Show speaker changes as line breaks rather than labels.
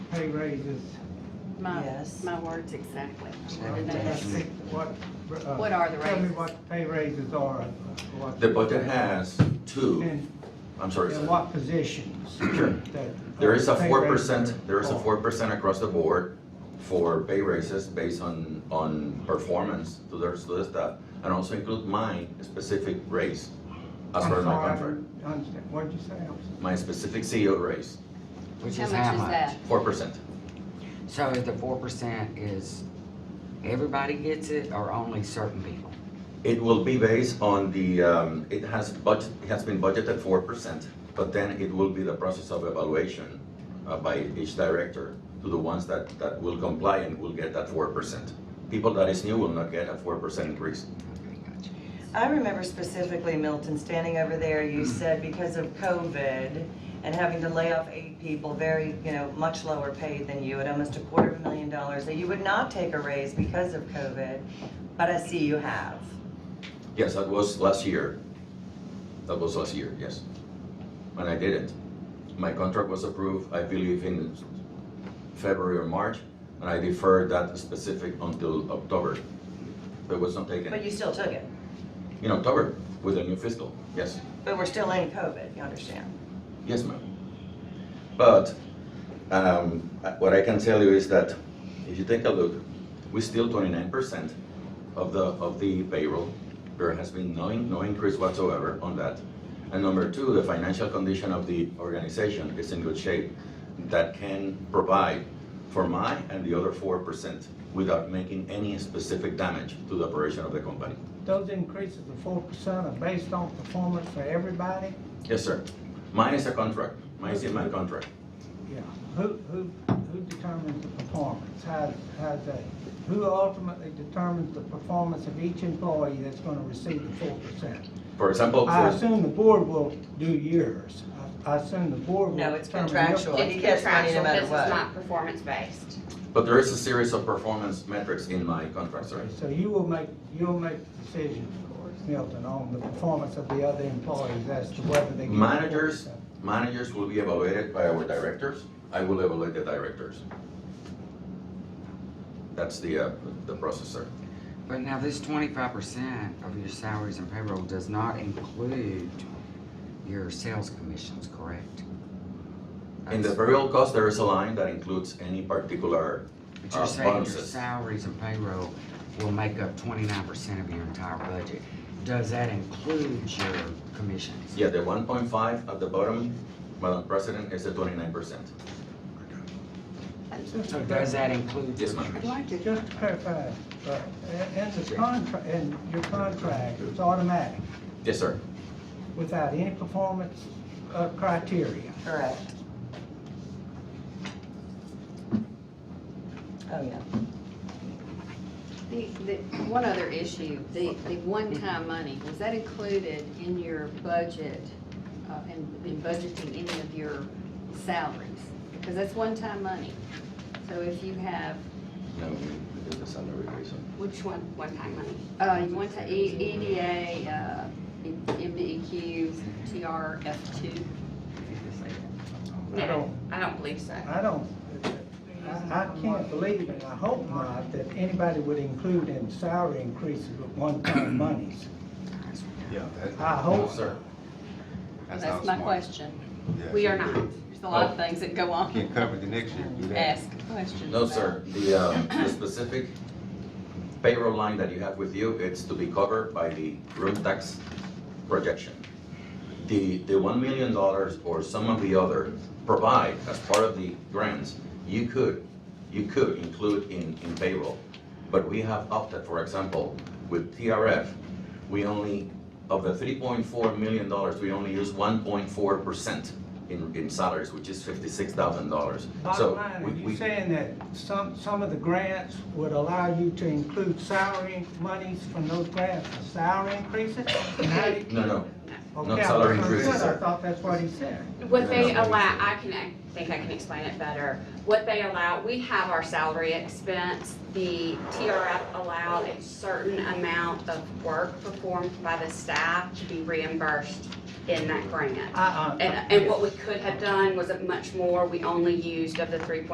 pay raises.
My,
Yes.
my words exactly.
That's What, uh,
What are the
Tell me
raises?
what the pay raises are. uh, what-
The budget has two,
And,
I'm sorry,
and
sir.
what positions? that uh,
There is a
pay
four
raises
percent, there is a
are.
four percent across the board for pay raises based on, on performance to their, to the staff, and also include my specific raise as
I'm
per my
sorry, I
contract,
didn't Understand, what did you say? I'm sorry.
my specific CEO raise,
Which
How
is
much
how
is
much?
that?
four percent.
So is the four percent is, everybody gets it or only certain people?
It will be based on the, um, it has budget, it has been budgeted four percent, but then it will be the process of evaluation uh, by each director to the ones that, that will comply and will get that four percent. People that is new will not get a four percent increase.
Okay, gotcha.
I remember specifically, Milton, standing over there, you said because of COVID and having to lay off eight people, very, you know, much lower paid than you, at almost a quarter of a million dollars, that you would not take a raise because of COVID, but I see you have.
Yes, that was last year. That was last year, yes. And I did it. My contract was approved, I believe, in February or March, and I deferred that specific until October. It was not taken.
But you still took it.
In October, with a new fiscal, yes,
But we're still in COVID, you understand?
yes, ma'am. But, um, uh, what I can tell you is that if you take a look, we still twenty-nine percent of the, of the payroll. There has been no, in- no increase whatsoever on that. And number two, the financial condition of the organization is in good shape. That can provide for my and the other four percent without making any specific damage to the operation of the company.
Those increases of four percent are based on performance for everybody?
Yes, sir. Mine is a contract, mine is in my contract.
Yeah. Who, who, who determines the performance? How's, how's that? Who ultimately determines the performance of each employee that's gonna receive the four percent?
For example,
I
for,
assume the board will do yours. I I assume the board will.
No, it's
determine your-
contractual. Well, he
It's
gets money no
contractual,
matter
this is
what.
not performance-based.
but there is a series of performance metrics in my contract, sir.
Okay, So you will make, you'll make the decision, Milton, on the performance of the other employees as to whether they. get the
Managers,
4%.
managers will be evaluated by our directors. I will evaluate the directors. That's the, uh, the process, sir.
But now this twenty-five percent of your salaries and payroll does not include your sales commissions, correct?
In the variable cost, there is a line that includes any particular,
But you're
uh,
saying your
bonuses.
salaries and payroll will make up twenty-nine percent of your entire budget. Does that include your commissions?
yeah, the one point five at the bottom, Madam President, is the twenty-nine percent.
So does that include?
Yes,
your
ma'am.
I'd like to,
Just to clarify, uh, in in the contract, in your contract, it's automatic,
Yes, sir.
without any performance uh, criteria.
Correct. Oh, yeah.
the, the, one other issue, the, the one-time money, was that included in your budget, uh, in, in budgeting any of your salaries? Because that's one-time money. So if you have,
No, we did the salary raise.
Which one, one-time money?
uh, you want to E- EDA, uh, MBEQ, TRF two,
I don't,
I don't believe so.
I don't, I, I can't believe, and I hope not, that anybody would include in salary increases with one-time monies.
Yeah. that-
I hope-
No, sir.
that's
not
my
smart.
question.
Yeah,
We
so
are
you
not. There's a lot of things that go on.
Can't cover the next year, do that.
Ask questions.
No,
about-
sir, the, um, the specific payroll line that you have with you, it's to be covered by the room tax projection. The, the one million dollars or some of the other provide as part of the grants, you could, you could include in, in payroll. But we have opted, for example, with TRF, we only, of the three point four million dollars, we only use one point four percent in, in salaries, which is fifty-six thousand dollars.
Bottom
So
line,
we-
are you
we-
saying that some, some of the grants would allow you to include salary monies from those grants for salary increases? Not
No, no,
Okay, I
salary
was
increases,
concerned. I
sir.
thought that's what he said.
What they allow, I can, I think I can explain it better. What they allow, we have our salary expense. The TRF allowed a certain amount of work performed by the staff to be reimbursed in that grant.
I- I-
And, and what we could have done wasn't much more. We only used of the three point